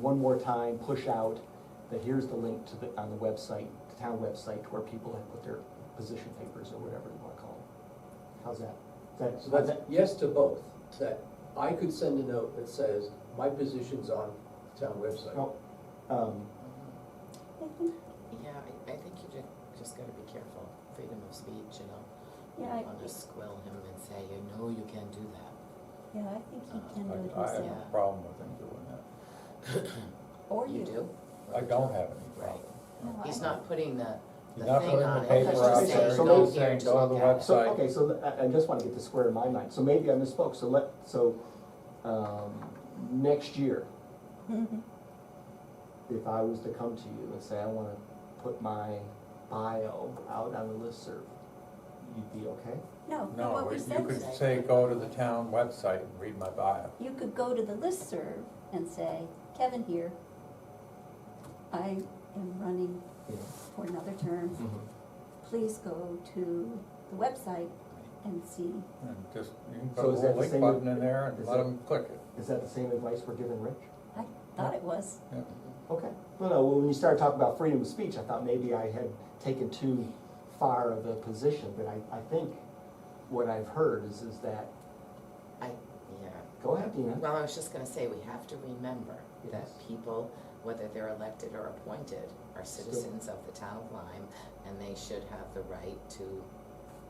one more time, push out that here's the link to the, on the website, the town website, where people have put their position papers or whatever you wanna call them. How's that? Is So that, that's yes to both, that I could send a note that says, my position's on the town website. oh, um, Yeah, I, I think you just, just gotta be careful, freedom of speech, you know? You Yeah, I, don't wanna squill him and say, you know, you can do that. yeah, I think he can do it I, I have himself, no problem with him doing that. or you. I don't have any problem. No, I He's don't. not putting the, the He's not thing putting the on it, paper he's out just there, saying, so go he's here saying, to go on look the at it. So, Sorry. okay, so the- I, I just wanna get this square in my mind, so maybe I misspoke, so let, so, um, next year, Mhm. if I was to come to you and say, I wanna put my bio out on the listserv, you'd be okay? No, but No, what we you said could is, today. say, go to the town website and read my bio. you could go to the listserv and say, Kevin here. I am running Yeah. for another term, Mm-hmm. please go to the website and see. And just, you can put So a is that little the link same- button in there and is let that- them click it. Is that the same advice we're giving Rich? I thought it was, Yeah. Okay, no, no, well, when you started talking about freedom of speech, I thought maybe I had taken too far of a position, but I, I think what I've heard is, is that, I, yeah. go ahead, Dina. Well, I was just gonna say, we have to remember that Yes. people, whether they're elected or appointed, are Still. citizens of the town of Lyme, and they should have the right to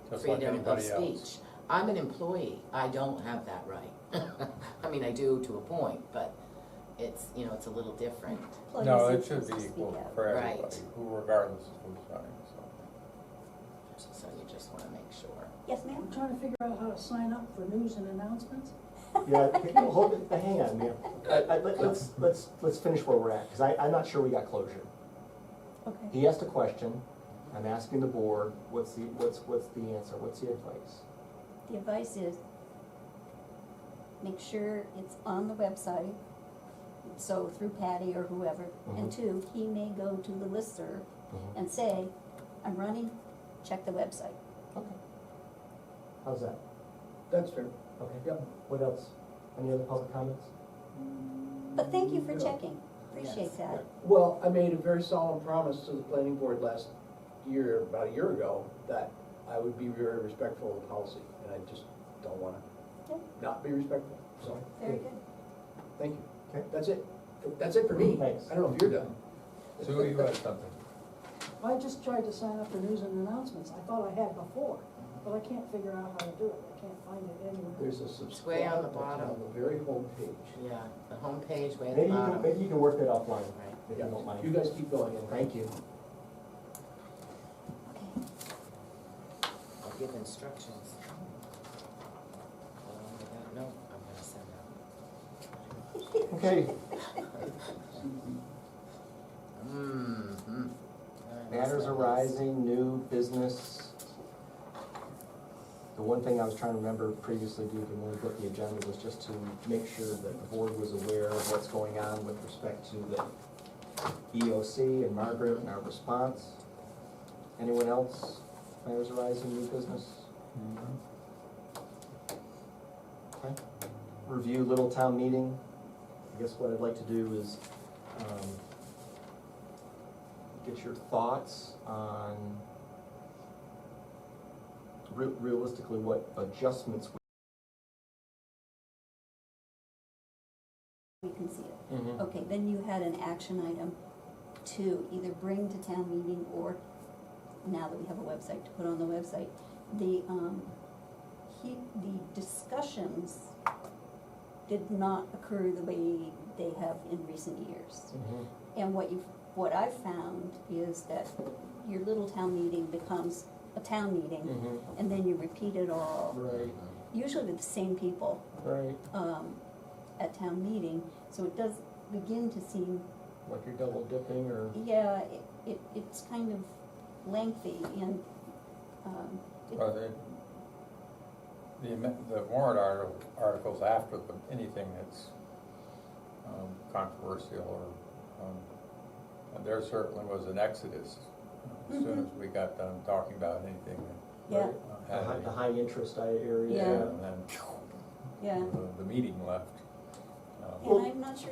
Just like freedom of anybody speech. else. I'm an employee, I don't have that right. I mean, I do to a point, but it's, you know, it's a little different. employees No, are it should supposed be to speak equal out. for Right. everybody, who regardless of who's running, so. So you just wanna make sure. Yes, ma'am? I'm trying to figure out how to sign up for news and announcements. Yeah, okay, no, hold it, hang on, ma'am. I- I- let- Let's, let's, let's finish where we're at, because I, I'm not sure we got closure. Okay, He asked a question, I'm asking the board, what's the, what's, what's the answer, what's the advice? the advice is, make sure it's on the website, so through Patty or whoever. And Mhm. two, he may go to the listserv and say, I'm running, check the website. Okay. How's that? That's fair. Okay. Yep. What else? Any other public comments? But thank you for Yeah. checking, appreciate Yes. that. Well, I made a very solemn promise to the planning board last year, about a year ago, that I would be very respectful of the policy, and I just don't wanna Yep. not be respectful, so, Very good. thank you. Okay. That's it, that's it for me. Thanks. I don't know if you're done. Sue, you uh, had something? Well, I just tried to sign up for news and announcements. I thought I had before, but I can't figure out how to do it. I can't find it anywhere. There's a It's way on subscribe the button on bottom. the very homepage. Yeah, the homepage way at the Maybe you can, bottom. maybe you can work that offline, Right. if you don't mind. You guys keep going. Thank you. Okay, I'll give instructions. Along with that note, I'm gonna send out. Okay, Mm-hmm. matters arising, new business. The one thing I was trying to remember previously, due to when we put the agenda, was just to make sure that the board was aware of what's going on with respect to the EOC and Margaret and our response. Anyone else? Matters arising, new business? Mm-hmm. Mhm. Okay. Review Little Town Meeting. I guess what I'd like to do is, um, get your thoughts on re- realistically what adjustments we can see it. we. Okay, then you had an action item to either bring to town meeting or, now that we have a website, to put on the website, the, um, he, the discussions did not occur the way they have in recent years. Mhm. And what you've, what I've found is that your little town meeting becomes a town meeting, Mhm. and then you repeat it all, Right, usually with the same people, right, um, at town meeting, so it does begin to seem, like you're double dipping or, yeah, it, it, it's kind of lengthy and, um, it- Well, the, the amen- the warrant arti- articles after the, anything that's um, controversial or, um, and there certainly was an exodus uh, as soon Mhm. as we got done talking about anything yeah, that uh, the high, had the any. high interest i- area. Yeah. And then yeah. the- the meeting left. Um, And I'm not sure